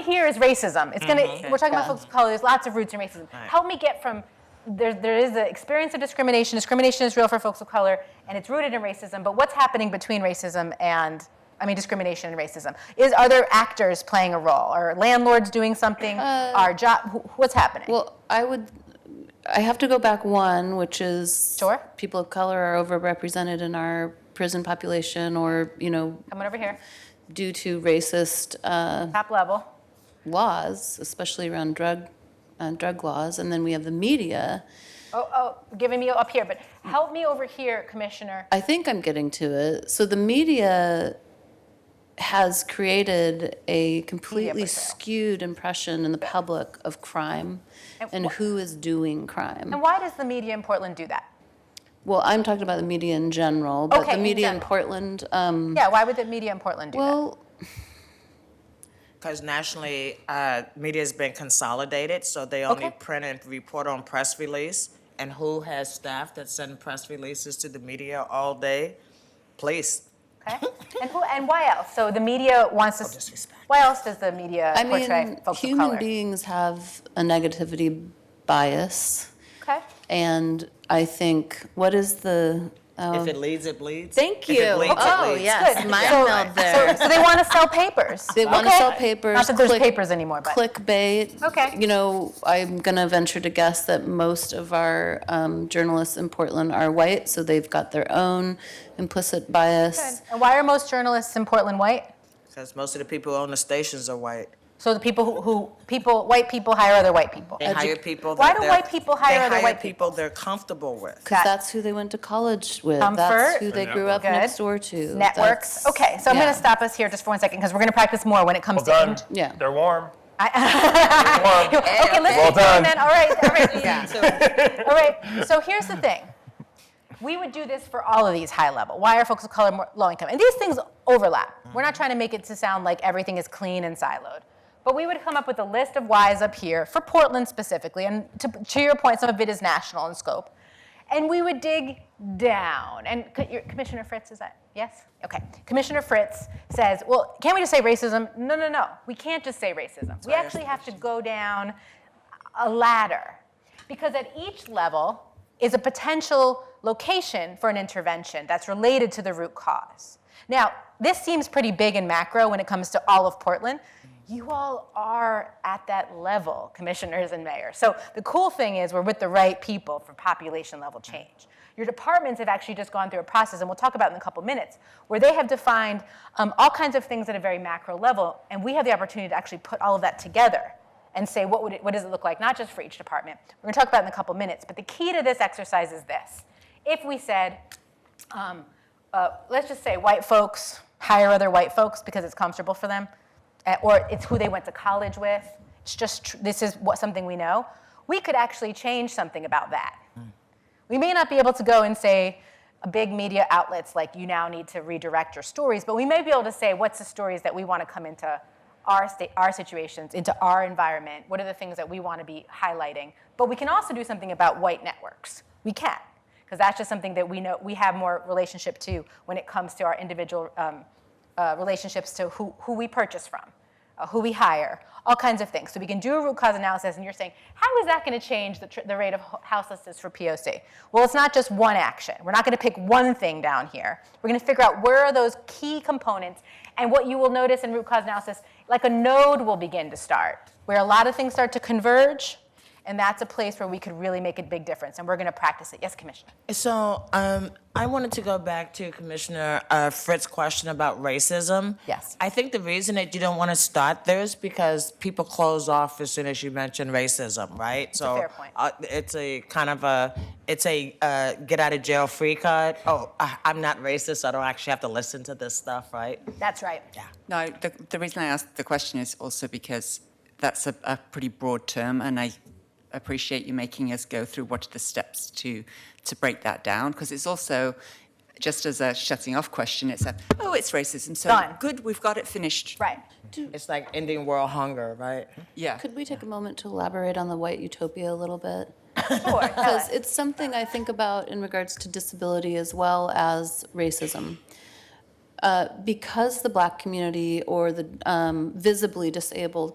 here is racism. It's gonna. We're talking about folks of color. There's lots of roots in racism. Help me get from there. There is the experience of discrimination. Discrimination is real for folks of color, and it's rooted in racism. But what's happening between racism and I mean, discrimination and racism. Is are there actors playing a role? Are landlords doing something? Are job? What's happening? Well, I would, I have to go back one, which is Sure. people of color are overrepresented in our prison population, or you know, Coming over here, due to racist uh, top level. laws, especially around drug uh, drug laws, and then we have the media. Oh, oh, giving me up here, but help me over here, Commissioner. I think I'm getting to it. So the media has created a completely portrayal. skewed impression in the public of crime And and wh- who is doing crime. And why does the media in Portland do that? Well, I'm talking about the media in general, but Okay, the in media in general. Portland. Um, Yeah, why would the media in Portland do that? well, Because nationally, uh, media has been consolidated, so they only Okay. print and report on press release. And who has staff that send press releases to the media all day? Police. Okay. and who and why else? So the media wants to. s- disrespect. Why else does the media I portray mean, folks of human color? beings have a negativity bias, okay. and I think what is the Um, if it leads, it bleeds. Thank If you. it bleeds, Oh, it bleeds. yeah. Good. Yes, mind so, meld there. So, so they want to sell papers. They wanna Okay. sell papers, Not that there's click- papers anymore, but clickbait? Okay. You know, I'm gonna venture to guess that most of our um, journalists in Portland are white, so they've got their own implicit bias. And why are most journalists in Portland white? Because most of the people who own the stations are white. So the people who, who people white people hire other white people. They hire people. Why that do they're- white people hire they other hire white people they're comfortable with? Because Got- that's who they went to college with. Comfort. That's who they grew up Good. next door to. Networks. That's- Okay, so I'm going yeah. to stop us here just for one second because we're going to practice more when it comes Well done. to. Yeah. They're warm. I, Warm. okay, let's Well keep going done. then. All right, all right. So, All right. So here's the thing. We would do this for all of these high level. Why are folks of color more low income? And these things overlap. We're not trying to make it to sound like everything is clean and siloed. But we would come up with a list of whys up here for Portland specifically. And to, to your point, some of it is national in scope. And we would dig down. And co- your- Commissioner Fritz, is that yes? Okay. Commissioner Fritz says, well, can't we just say racism? No, no, no. We can't just say racism. We why I asked actually the have to go down a ladder because at each level is a potential location for an intervention that's related to the root cause. Now, this seems pretty big and macro when it comes to all of Portland. You all are at that level, commissioners and mayors. So the cool thing is we're with the right people for population level change. Your departments have actually just gone through a process, and we'll talk about it in a couple minutes, where they have defined um, all kinds of things at a very macro level, and we have the opportunity to actually put all of that together and say what would it, what does it look like not just for each department we're going to talk about it in a couple minutes but the key to this exercise is this if we said um, uh, let's just say white folks hire other white folks because it's comfortable for them eh, or it's who they went to college with it's just tr- this is what something we know we could actually change something about that we may not be able to go and say uh, big media outlets like you now need to redirect your stories, but we may be able to say what's the stories that we want to come into our state, our situations, into our environment. What are the things that we want to be highlighting? But we can also do something about white networks. We can, because that's just something that we know we have more relationship to when it comes to our individual um, uh, relationships to who, who we purchase from, uh, who we hire, all kinds of things. So we can do a root cause analysis, and you're saying, how is that going to change the, tr- the rate of ho- houselessness for POC? Well, it's not just one action. We're not going to pick one thing down here. We're going to figure out where are those key components, and what you will notice in root cause analysis, like a node will begin to start, where a lot of things start to converge, and that's a place where we could really make a big difference, and we're going to practice it. Yes, Commissioner. so um, I wanted to go back to Commissioner uh, Fritz's question about racism. Yes. I think the reason that you don't want to start there is because people close off as soon as you mention racism, right? It's a fair point. Uh, it's a kind of a, it's a uh, get out of jail free card. Oh, I, I'm not racist. I don't actually have to listen to this stuff, right? That's right. No, the, the reason I asked the question is also because that's a, a pretty broad term, and I appreciate you making us go through what are the steps to to break that down, because it's also just as a shutting off question. It's a oh, it's racism. So Done. good, we've got it finished. Right. It's like ending world hunger, right? Yeah. Could we take a moment to elaborate on the white utopia a little bit? Sure. Tell us. Because it's something I think about in regards to disability as well as racism. Uh, because the black community or the um, visibly disabled